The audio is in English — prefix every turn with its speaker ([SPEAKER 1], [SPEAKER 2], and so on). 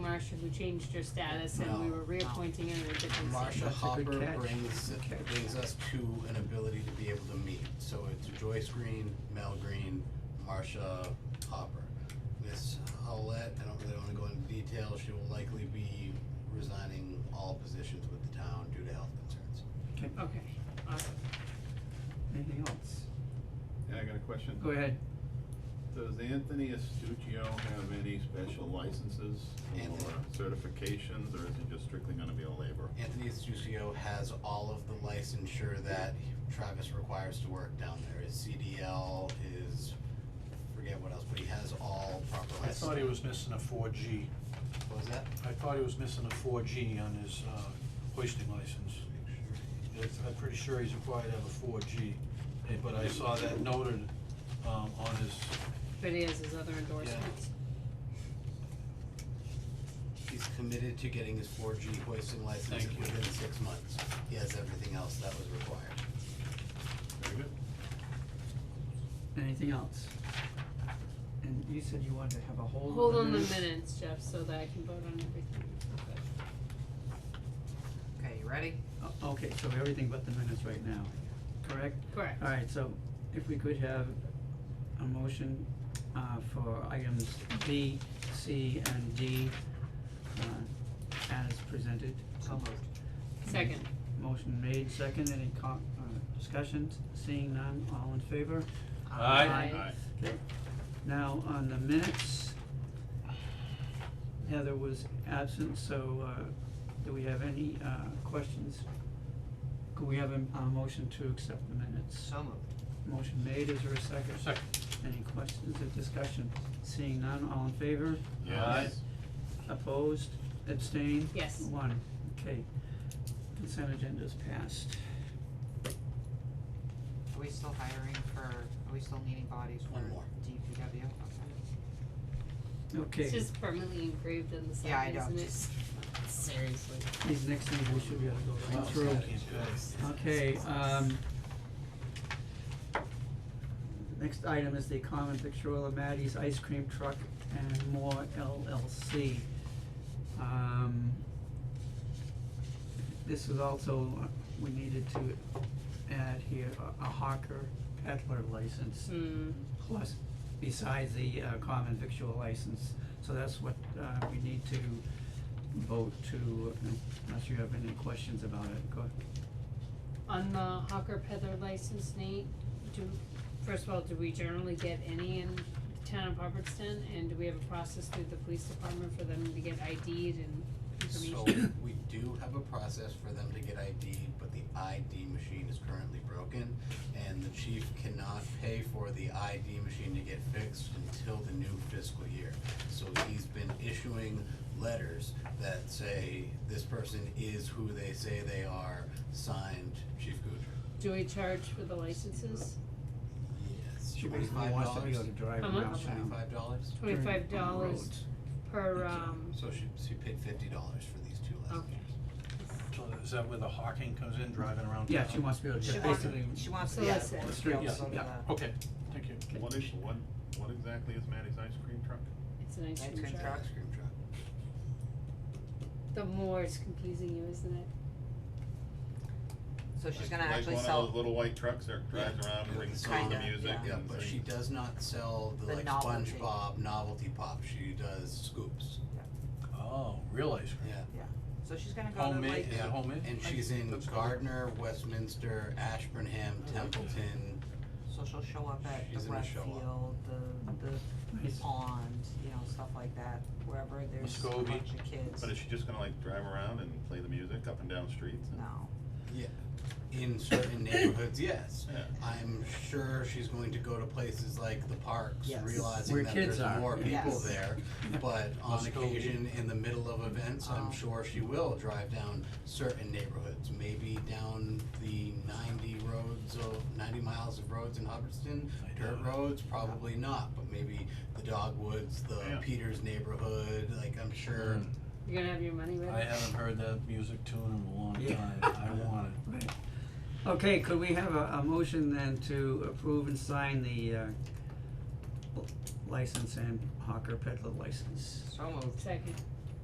[SPEAKER 1] Marsh, who changed her status, and we
[SPEAKER 2] No.
[SPEAKER 1] were reappointing her in a different
[SPEAKER 2] Marsha
[SPEAKER 1] seat.
[SPEAKER 3] That's a good
[SPEAKER 2] Hopper
[SPEAKER 3] catch.
[SPEAKER 2] brings,
[SPEAKER 3] Good catch.
[SPEAKER 2] brings us to an ability to be able to meet, so it's Joyce Green, Mel Green, Marsha Hopper. Miss Howlett, I don't really wanna go into detail, she will likely be resigning all positions with the town due to health concerns.
[SPEAKER 3] Okay,
[SPEAKER 1] Okay, awesome.
[SPEAKER 3] anything else?
[SPEAKER 4] Yeah, I got a question.
[SPEAKER 3] Go ahead.
[SPEAKER 4] Does Anthony Estudio have any special licenses
[SPEAKER 2] Anthony.
[SPEAKER 4] or certifications, or is he just strictly gonna be a laborer?
[SPEAKER 2] Anthony Estucio has all of the licensure that Travis requires to work down there, his CDL, his, forget what else, but he has all proper
[SPEAKER 5] I
[SPEAKER 2] license.
[SPEAKER 5] thought he was missing a four G.
[SPEAKER 2] What was that?
[SPEAKER 5] I thought he was missing a four G on his, uh, hoisting license. It's- I'm pretty sure he's required to have a four G, Eh, but I saw that noted, um, on his,
[SPEAKER 1] But he has his other endorsements.
[SPEAKER 2] He's committed to getting his four G hoisting license
[SPEAKER 5] Thank you.
[SPEAKER 2] within six months. He has everything else that was required.
[SPEAKER 4] Very good.
[SPEAKER 3] Anything else? And you said you wanted to have a hold
[SPEAKER 1] Hold
[SPEAKER 3] on
[SPEAKER 1] on
[SPEAKER 3] the
[SPEAKER 1] the
[SPEAKER 3] minutes.
[SPEAKER 1] minutes, Jeff, so that I can vote on everything.
[SPEAKER 6] Okay, you ready?
[SPEAKER 3] O- Oh, Okay, so everything but the minutes right now, correct?
[SPEAKER 1] Correct.
[SPEAKER 3] Alright, so if we could have a motion uh for items B, C and D uh as presented.
[SPEAKER 6] So moved.
[SPEAKER 1] Second.
[SPEAKER 3] Motion made, second, any co- uh discussions, seeing none, all in favor?
[SPEAKER 5] Aye.
[SPEAKER 1] Aye.
[SPEAKER 3] Okay, now on the minutes. Heather was absent, so uh do we have any uh questions? Could we have a a motion to accept the minutes?
[SPEAKER 6] So moved.
[SPEAKER 3] Motion made, is there a second?
[SPEAKER 5] second.
[SPEAKER 3] Any questions or discussion? Seeing none, all in favor?
[SPEAKER 4] Yes.
[SPEAKER 3] Opposed? Abstained?
[SPEAKER 1] Yes.
[SPEAKER 3] One, okay. Consent agenda is passed.
[SPEAKER 6] Are we still hiring for, are we still needing bodies for
[SPEAKER 2] One more.
[SPEAKER 6] DPW? Okay.
[SPEAKER 1] It's
[SPEAKER 3] Okay,
[SPEAKER 1] just permanently engraved in the
[SPEAKER 6] Yeah, I
[SPEAKER 1] side,
[SPEAKER 6] know,
[SPEAKER 1] isn't it?
[SPEAKER 6] just-
[SPEAKER 1] Seriously.
[SPEAKER 3] these next things we should be able to go
[SPEAKER 2] Wow.
[SPEAKER 3] right through. Okay, um. Next item is the common victualler Maddie's Ice Cream Truck and More LLC. Um. This is also, uh, we needed to add here a a hawker peddler license
[SPEAKER 1] Hmm,
[SPEAKER 3] plus besides the uh common victual license, so that's what uh we need to vote to, unless you have any questions about it, go
[SPEAKER 1] on the hawker peddler license, Nate, do, first of all, do we generally get any in the town of Hubbardston? And do we have a process through the police department for them to get ID'd and
[SPEAKER 2] So
[SPEAKER 1] information?
[SPEAKER 2] we do have a process for them to get ID, but the ID machine is currently broken and the chief cannot pay for the ID machine to get fixed until the new fiscal year. So he's been issuing letters that say this person is who they say they are, signed Chief Guder.
[SPEAKER 1] Do we charge for the licenses?
[SPEAKER 2] Yes,
[SPEAKER 3] She
[SPEAKER 2] twenty-five dollars.
[SPEAKER 3] basically wants to be able to drive
[SPEAKER 1] How
[SPEAKER 3] around
[SPEAKER 1] much?
[SPEAKER 3] town
[SPEAKER 2] Twenty-five dollars?
[SPEAKER 3] during- on the
[SPEAKER 1] Twenty-five dollars
[SPEAKER 3] roads.
[SPEAKER 1] per, um,
[SPEAKER 2] So she, she paid fifty dollars for these two lessons.
[SPEAKER 1] okay.
[SPEAKER 5] So is that where the hawking comes in, driving around town?
[SPEAKER 3] Yeah, she wants to be able to
[SPEAKER 6] She
[SPEAKER 3] just
[SPEAKER 6] wants,
[SPEAKER 3] basically,
[SPEAKER 6] she wants to
[SPEAKER 1] So
[SPEAKER 6] be
[SPEAKER 1] that's
[SPEAKER 6] able
[SPEAKER 1] it.
[SPEAKER 6] to be able to
[SPEAKER 5] Yeah,
[SPEAKER 6] go to
[SPEAKER 5] yeah. Oh.
[SPEAKER 6] the
[SPEAKER 5] Okay, thank you.
[SPEAKER 4] What is, what, what exactly is Maddie's ice cream truck?
[SPEAKER 1] It's an ice
[SPEAKER 6] Ice
[SPEAKER 1] cream
[SPEAKER 6] cream
[SPEAKER 1] truck.
[SPEAKER 6] truck.
[SPEAKER 2] Ice cream truck.
[SPEAKER 1] The more it's confusing you, isn't it?
[SPEAKER 6] So she's
[SPEAKER 4] Like-
[SPEAKER 6] gonna actually
[SPEAKER 4] Like one of those
[SPEAKER 6] sell,
[SPEAKER 4] little white trucks that drives around and brings
[SPEAKER 2] Kinda,
[SPEAKER 4] on the music
[SPEAKER 6] yeah.
[SPEAKER 2] Yeah,
[SPEAKER 4] and
[SPEAKER 2] but she
[SPEAKER 4] sings.
[SPEAKER 2] does not sell the
[SPEAKER 6] The
[SPEAKER 2] like
[SPEAKER 6] novelty.
[SPEAKER 2] SpongeBob novelty pop, she does scoops,
[SPEAKER 5] Oh, real ice cream.
[SPEAKER 2] yeah.
[SPEAKER 6] so she's gonna go to
[SPEAKER 5] Homemade,
[SPEAKER 6] like,
[SPEAKER 5] is it
[SPEAKER 2] Yeah.
[SPEAKER 5] homemade?
[SPEAKER 2] And she's in
[SPEAKER 5] Looks good.
[SPEAKER 2] Gardner, Westminster, Ashburnham,
[SPEAKER 5] like
[SPEAKER 2] Templeton,
[SPEAKER 6] so she'll show up at
[SPEAKER 2] She's
[SPEAKER 6] the
[SPEAKER 2] gonna
[SPEAKER 6] rec
[SPEAKER 2] show up.
[SPEAKER 6] field, the, the
[SPEAKER 3] Nice.
[SPEAKER 6] pond, you know, stuff like that, wherever there's a
[SPEAKER 5] Muscovy.
[SPEAKER 6] bunch of kids.
[SPEAKER 4] But is she just gonna like drive around and play the music up and down streets? and-
[SPEAKER 6] No,
[SPEAKER 2] in certain neighborhoods, yes.
[SPEAKER 4] Yeah.
[SPEAKER 2] I'm sure she's going to go to places like the parks,
[SPEAKER 6] Yes.
[SPEAKER 2] realizing
[SPEAKER 3] Where
[SPEAKER 2] that
[SPEAKER 3] kids
[SPEAKER 2] there's
[SPEAKER 3] are,
[SPEAKER 2] more people
[SPEAKER 6] yes.
[SPEAKER 2] there. But on
[SPEAKER 5] Let's go.
[SPEAKER 2] occasion, in the middle of events, I'm
[SPEAKER 6] Oh.
[SPEAKER 2] sure she will drive down certain neighborhoods, maybe down the ninety roads of, ninety miles of roads in Hubbardston.
[SPEAKER 5] I
[SPEAKER 2] Dirt
[SPEAKER 5] know.
[SPEAKER 2] roads, probably not, but maybe the Dogwoods, the
[SPEAKER 4] Yeah.
[SPEAKER 2] Peters neighborhood, like I'm sure.
[SPEAKER 5] Mm.
[SPEAKER 1] You're gonna have your money with it?
[SPEAKER 5] I haven't heard that music tune in a long
[SPEAKER 3] Yeah.
[SPEAKER 5] time. I want it.
[SPEAKER 3] right. Okay, could we have a, a motion then to approve and sign the uh license and hawker peddler license?
[SPEAKER 6] so moved.
[SPEAKER 1] Second,